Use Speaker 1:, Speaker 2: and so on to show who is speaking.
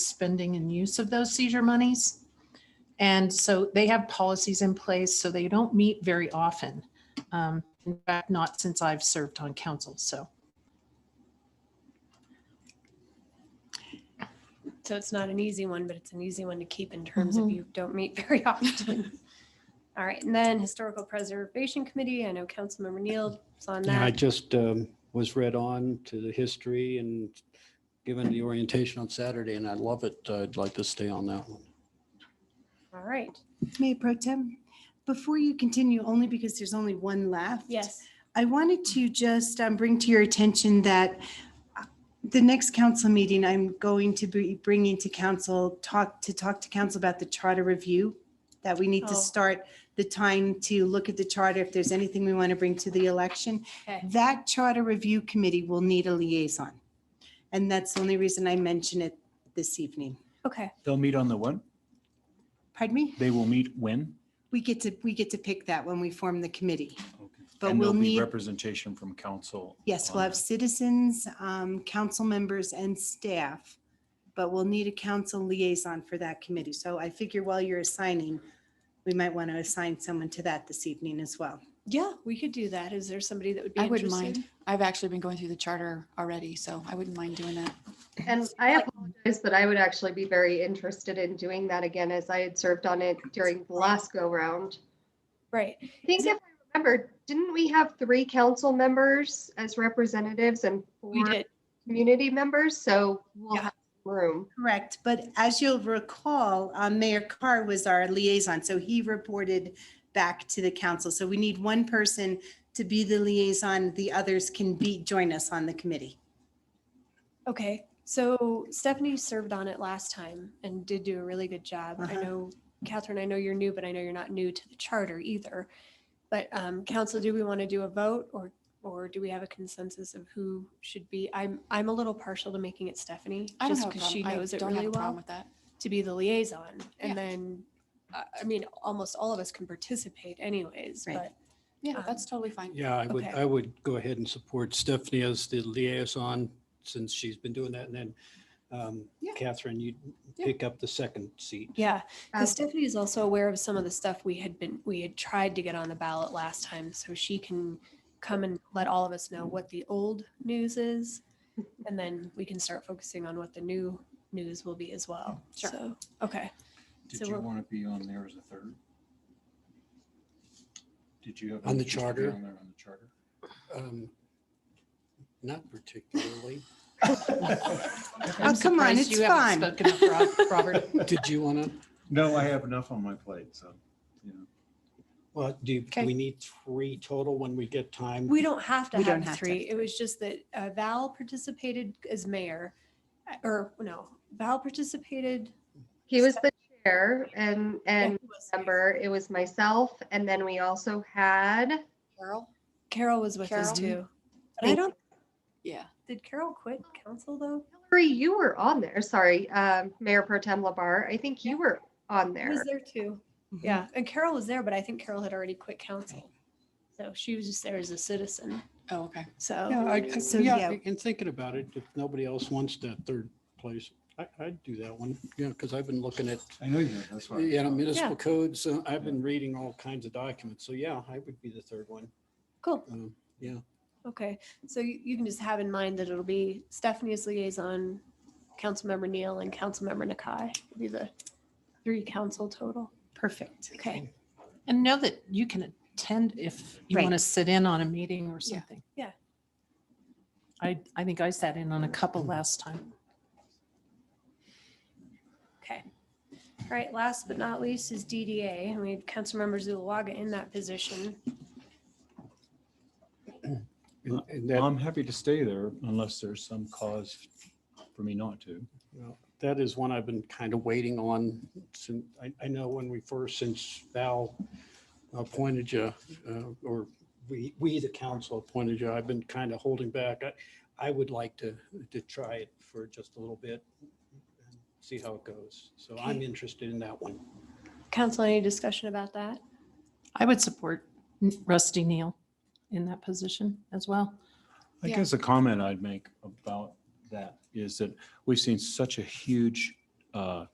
Speaker 1: spending and use of those seizure monies. And so they have policies in place, so they don't meet very often. Um, In fact, not since I've served on council, so.
Speaker 2: So it's not an easy one, but it's an easy one to keep in terms
Speaker 3: Mm-hmm.
Speaker 2: of you don't meet very often. All right, and then Historical Preservation Committee, I know Councilmember Neal is on
Speaker 4: Yeah, I
Speaker 2: that.
Speaker 4: just um, was read on to the history and given the orientation on Saturday, and I love it. uh, I'd like to stay on that one.
Speaker 2: All right,
Speaker 5: Mayor Pro Tem, before you continue, only because there's only one left.
Speaker 2: yes,
Speaker 5: I wanted to just um, bring to your attention that uh, the next council meeting, I'm going to be bringing to council, talk, to talk to council about the charter review, that we need
Speaker 2: Oh.
Speaker 5: to start the time to look at the charter, if there's anything we want to bring to the election.
Speaker 2: okay,
Speaker 5: That charter review committee will need a liaison. And that's the only reason I mention it this evening.
Speaker 2: okay,
Speaker 6: They'll meet on the what?
Speaker 5: Pardon me?
Speaker 6: They will meet when?
Speaker 5: We get to, we get to pick that when we form the committee. But
Speaker 6: And
Speaker 5: we'll
Speaker 6: there'll be
Speaker 5: need,
Speaker 6: representation from council.
Speaker 5: yes,
Speaker 6: on
Speaker 5: we'll have
Speaker 6: that.
Speaker 5: citizens, um, council members and staff. But we'll need a council liaison for that committee. So I figure while you're assigning, we might want to assign someone to that this evening as well.
Speaker 2: yeah, we could do that. Is there somebody that would be
Speaker 3: I
Speaker 2: interested?
Speaker 3: wouldn't mind. I've actually been going through the charter already, so I wouldn't mind doing that.
Speaker 7: And I apologize, but I would actually be very interested in doing that again as I had served on it during the last go round.
Speaker 2: Right,
Speaker 7: I think if I remember, didn't we have three council members as representatives and
Speaker 2: we
Speaker 7: four
Speaker 2: did,
Speaker 7: community members? So we'll
Speaker 2: Yeah.
Speaker 7: have room.
Speaker 5: Correct. But as you'll recall, um, Mayor Carr was our liaison, so he reported back to the council. So we need one person to be the liaison. The others can be, join us on the committee.
Speaker 2: okay. So Stephanie served on it last time and did do a really good job. I
Speaker 5: Uh-huh.
Speaker 2: know, Catherine, I know you're new, but I know you're not new to the charter either. But um, council, do we want to do a vote or, or do we have a consensus of who should be? I'm, I'm a little partial to making it Stephanie,
Speaker 3: I don't
Speaker 2: just
Speaker 3: have a
Speaker 2: because she
Speaker 3: problem. I
Speaker 2: knows it
Speaker 3: don't have
Speaker 2: really
Speaker 3: a problem
Speaker 2: well,
Speaker 3: with that.
Speaker 2: to be the liaison.
Speaker 3: Yeah.
Speaker 2: And then, I I mean, almost all of us can participate anyways,
Speaker 5: Right.
Speaker 2: but
Speaker 3: Yeah, that's
Speaker 2: Um,
Speaker 3: totally fine.
Speaker 4: Yeah, I would,
Speaker 2: Okay.
Speaker 4: I would go ahead and support Stephanie as the liaison since she's been doing that. And then um,
Speaker 3: Yeah.
Speaker 4: Catherine, you
Speaker 3: Yeah.
Speaker 4: pick up the second seat.
Speaker 2: yeah.
Speaker 7: Uh,
Speaker 2: Because Stephanie is also aware of some of the stuff we had been, we had tried to get on the ballot last time, so she can come and let all of us know what the old news is. And then we can start focusing on what the new news will be as well.
Speaker 3: Sure.
Speaker 2: So, okay.
Speaker 5: Mm-hmm.
Speaker 2: So
Speaker 6: Did you
Speaker 2: we'll-
Speaker 6: want to be on there as a third? Did you have?
Speaker 4: On the
Speaker 6: interest to be
Speaker 4: charter?
Speaker 6: on there On the charter?
Speaker 4: Um, Not particularly.
Speaker 1: I'm
Speaker 5: come on,
Speaker 1: surprised
Speaker 5: it's
Speaker 1: you haven't Spoken up, Rob- Robert.
Speaker 4: Did you want to,
Speaker 6: No, I have enough on my plate, so.
Speaker 4: well, do, you-
Speaker 1: Okay.
Speaker 4: we need three total when we get time?
Speaker 2: We don't have to
Speaker 5: We don't
Speaker 2: have the
Speaker 5: have to
Speaker 2: three.
Speaker 5: have
Speaker 2: It was just that uh, Val participated as mayor, uh, or no, Val participated.
Speaker 7: He was the chair and, and
Speaker 2: Yeah, was-
Speaker 7: member, it was myself. And then we also had,
Speaker 3: Carol?
Speaker 2: Carol was with us
Speaker 3: Carol?
Speaker 2: too. But I don't,
Speaker 3: Yeah.
Speaker 2: did Carol quit council though?
Speaker 7: Hillary, you were on there. Sorry, um, Mayor Pro Tem Labar. I think you were on
Speaker 2: I
Speaker 7: there.
Speaker 2: was there too.
Speaker 4: Mm-hmm.
Speaker 2: Yeah, and Carol was there, but I think Carol had already quit council. So she was just there as a citizen.
Speaker 3: Oh, okay.
Speaker 4: Yeah,
Speaker 2: So,
Speaker 4: I,
Speaker 5: So,
Speaker 4: I- yeah,
Speaker 5: yeah.
Speaker 4: and thinking about it, if nobody else wants that third place, I, I'd do that one, you know, because I've been looking at,
Speaker 6: I know you, have, that's why.
Speaker 4: you know, municipal codes, uh, I've been reading all kinds of documents, so yeah, I would be the third one.
Speaker 2: cool.
Speaker 4: Um, Yeah,
Speaker 2: Okay. So you you can just have in mind that it'll be Stephanie as liaison, Councilmember Neal and Councilmember Nakai will be the three council total.
Speaker 5: Perfect.
Speaker 2: Okay.
Speaker 1: And know that you can attend if you
Speaker 5: Right.
Speaker 1: want to sit in on a meeting or
Speaker 3: Yeah.
Speaker 1: something.
Speaker 2: Yeah.
Speaker 1: I, I think I sat in on a couple last time.
Speaker 2: Okay. All right. Last but not least is DDA. And we have Councilmember Zulawaga in that position.
Speaker 4: and- and that,
Speaker 6: I'm happy to stay there unless there's some cause for me not to.
Speaker 4: well, that is one I've been kind of waiting on since, I, I know when we first, since Val appointed you, uh, or we, we, the council appointed you, I've been kind of holding back. I, I would like to, to try it for just a little bit, and see how it goes. So I'm interested in that one.
Speaker 2: Council, any discussion about that?
Speaker 1: I would support N- Rusty Neal in that position as well.
Speaker 6: I
Speaker 3: Yeah.
Speaker 6: guess a comment I'd make about that is that we've seen such a huge uh,